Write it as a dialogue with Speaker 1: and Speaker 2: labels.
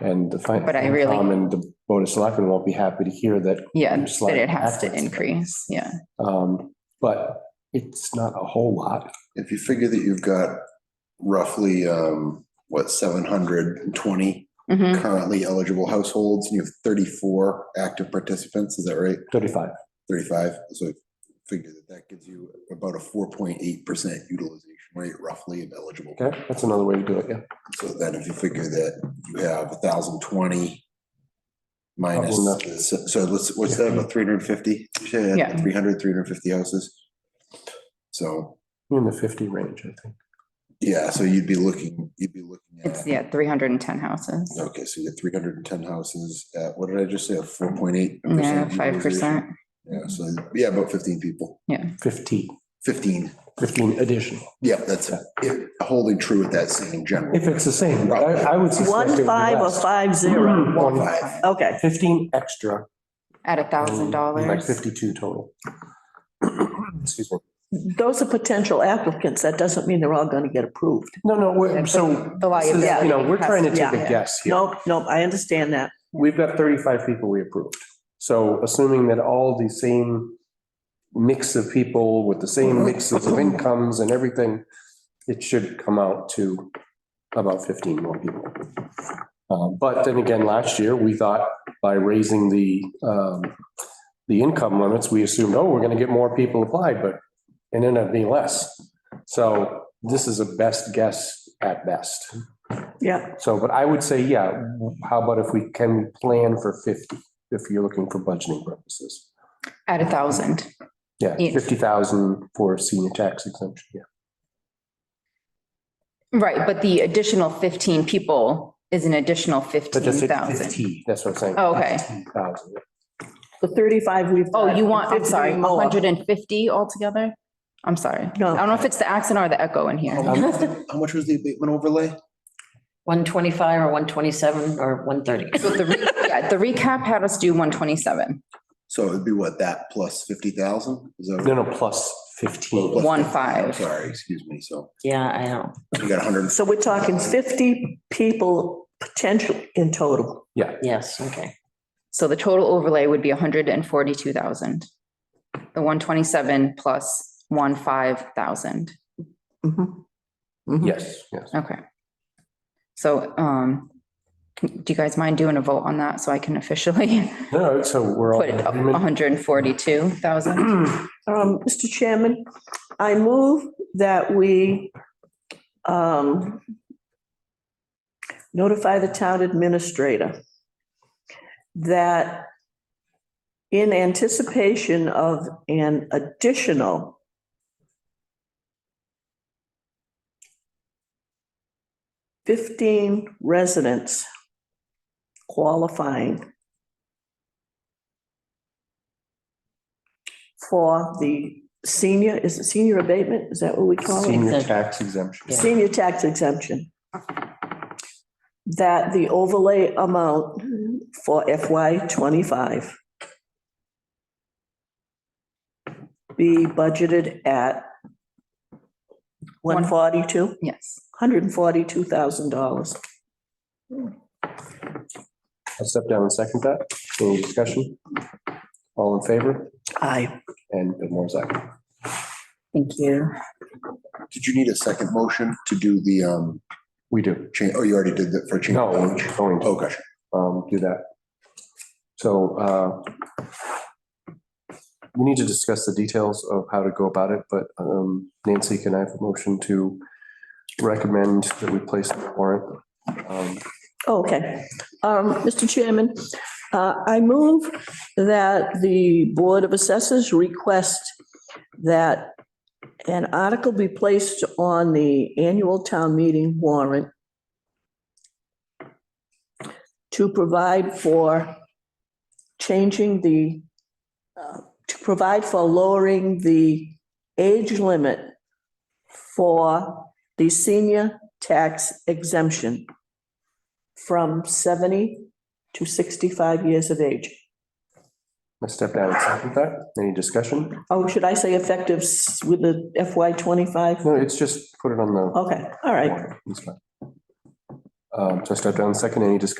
Speaker 1: And the finance.
Speaker 2: But I really-
Speaker 1: And the board of selectmen won't be happy to hear that.
Speaker 2: Yeah,
Speaker 1: It's
Speaker 2: that
Speaker 1: like
Speaker 2: it has to
Speaker 1: backwards.
Speaker 2: increase, yeah.
Speaker 1: Um, but it's not a whole lot.
Speaker 3: If you figure that you've got roughly, um, what, seven hundred and twenty
Speaker 2: Mhm.
Speaker 3: currently eligible households, and you have thirty-four active participants, is that right?
Speaker 1: Thirty-five.
Speaker 3: Thirty-five, so figure that that gives you about a four point eight percent utilization rate roughly of eligible.
Speaker 1: Okay, that's another way to do it, yeah.
Speaker 3: So then if you figure that you have a thousand twenty minus,
Speaker 1: Probably
Speaker 3: so so let's, what's that, about three hundred and fifty?
Speaker 2: Yeah.
Speaker 3: 300, 350 houses. So,
Speaker 1: In the fifty range, I think.
Speaker 3: yeah, so you'd be looking, you'd be looking at.
Speaker 2: It's, yeah, three hundred and ten houses.
Speaker 3: Okay, so you get three hundred and ten houses at, what did I just say, a four point eight?
Speaker 2: Yeah, five percent.
Speaker 3: Yeah, so, yeah, about fifteen people,
Speaker 1: Fifteen.
Speaker 3: fifteen,
Speaker 1: Fifteen additional.
Speaker 3: yeah, that's, it. holding true with that same general.
Speaker 1: If it's the same, I, I would suspect. it would
Speaker 4: One
Speaker 1: be
Speaker 4: five or
Speaker 1: less.
Speaker 4: five zero? Mm-hmm.
Speaker 1: One-
Speaker 4: Okay,
Speaker 1: Fifteen extra. Um,
Speaker 2: At a thousand
Speaker 1: Like
Speaker 2: dollars.
Speaker 1: fifty-two total. Excuse me.
Speaker 4: those are potential applicants. That doesn't mean they're all going to get approved.
Speaker 1: No, no, we're,
Speaker 2: And
Speaker 1: so,
Speaker 2: The
Speaker 1: this is,
Speaker 2: liability.
Speaker 1: you know, we're
Speaker 2: has
Speaker 1: trying to
Speaker 2: be-
Speaker 1: take a
Speaker 2: yeah.
Speaker 1: guess here.
Speaker 4: Nope, nope, I understand that.
Speaker 1: We've got thirty-five people we approved. So assuming that all the same mix of people with the same mixes of incomes and everything, it should come out to about fifteen more people. Uh, But then again, last year, we thought by raising the, um, the income limits, we assumed, oh, we're gonna get more people applied, but it ended up being less. So this is a best guess at best.
Speaker 4: Yeah,
Speaker 1: So, but I would say, yeah, how about if we can plan for 50, if you're looking for budgeting purposes?
Speaker 2: At a thousand.
Speaker 1: Yeah,
Speaker 2: Yeah.
Speaker 1: 50,000 for senior tax exemption, yeah.
Speaker 2: Right, but the additional fifteen people is an additional
Speaker 1: But
Speaker 2: fifteen
Speaker 1: just hit
Speaker 2: thousand.
Speaker 1: 50, that's what I'm saying.
Speaker 2: Oh, okay.
Speaker 1: 50,000, yeah.
Speaker 4: the thirty-five we've.
Speaker 2: Oh,
Speaker 4: got
Speaker 2: you
Speaker 4: and
Speaker 2: want, I'm
Speaker 4: 50
Speaker 2: sorry,
Speaker 4: more.
Speaker 2: hundred and fifty altogether? I'm sorry. I
Speaker 4: No.
Speaker 2: don't know if it's the accent or the echo in here.
Speaker 3: How much was the abatement overlay?
Speaker 5: One twenty-five or one twenty-seven or one thirty.
Speaker 2: So the re- yeah, the recap had us do one twenty-seven,
Speaker 3: So it'd be what, that plus fifty thousand? Is that?
Speaker 1: No, no, plus 15.
Speaker 2: one
Speaker 3: I'm
Speaker 2: five.
Speaker 3: Sorry, excuse me, so
Speaker 5: Yeah, I know.
Speaker 3: you got hundred,
Speaker 4: So we're talking fifty people potential in total.
Speaker 5: Yes, okay.
Speaker 2: So the total overlay would be hundred and forty-two thousand. The one twenty-seven plus one five thousand.
Speaker 4: Mhm.
Speaker 2: Mm-hmm.
Speaker 4: Mhm.
Speaker 1: Yes, yes.
Speaker 2: Okay. So, um, can- do you guys mind doing a vote on that so I can officially
Speaker 1: No, so we're all.
Speaker 2: put it up hundred and forty-two thousand?
Speaker 4: Um, Mr. Chairman, I move that we um, notify the town administrator that in anticipation of an additional fifteen residents qualifying for the senior, is it senior abatement? Is that what
Speaker 2: Oh,
Speaker 4: we call it?
Speaker 1: Senior tax exemption.
Speaker 5: Yeah.
Speaker 4: Senior tax exemption. That the overlay amount for FY twenty-five be budgeted at one forty-two,
Speaker 2: Yes.
Speaker 4: hundred and forty-two thousand dollars.
Speaker 1: I'll step down and second that. Any discussion? All in favor?
Speaker 4: Aye.
Speaker 1: And Bill Moore's aye.
Speaker 2: Thank you.
Speaker 3: did you need a second motion to do the, um,
Speaker 1: We do.
Speaker 3: change, oh, you already did that for change?
Speaker 1: No, we're going to.
Speaker 3: Oh, gosh.
Speaker 1: um, do that. So, uh, we need to discuss the details of how to go about it, but, um, Nancy, can I have a motion to recommend that we place the warrant? Um,
Speaker 4: Oh, Okay. Um, Mr. Chairman, uh, I move that the Board of Assessors request that an article be placed on the annual town meeting warrant to provide for changing the, uh, to provide for lowering the age limit for the senior tax exemption from 70 to 65 years of age.
Speaker 1: I step down and second that. Any discussion?
Speaker 4: Oh, should I say effective s- with the FY 25?
Speaker 1: No, it's just put it on the
Speaker 4: Oh, Okay, all right.
Speaker 1: warrant. It's fine. Um, so I step down and second. Any discussion?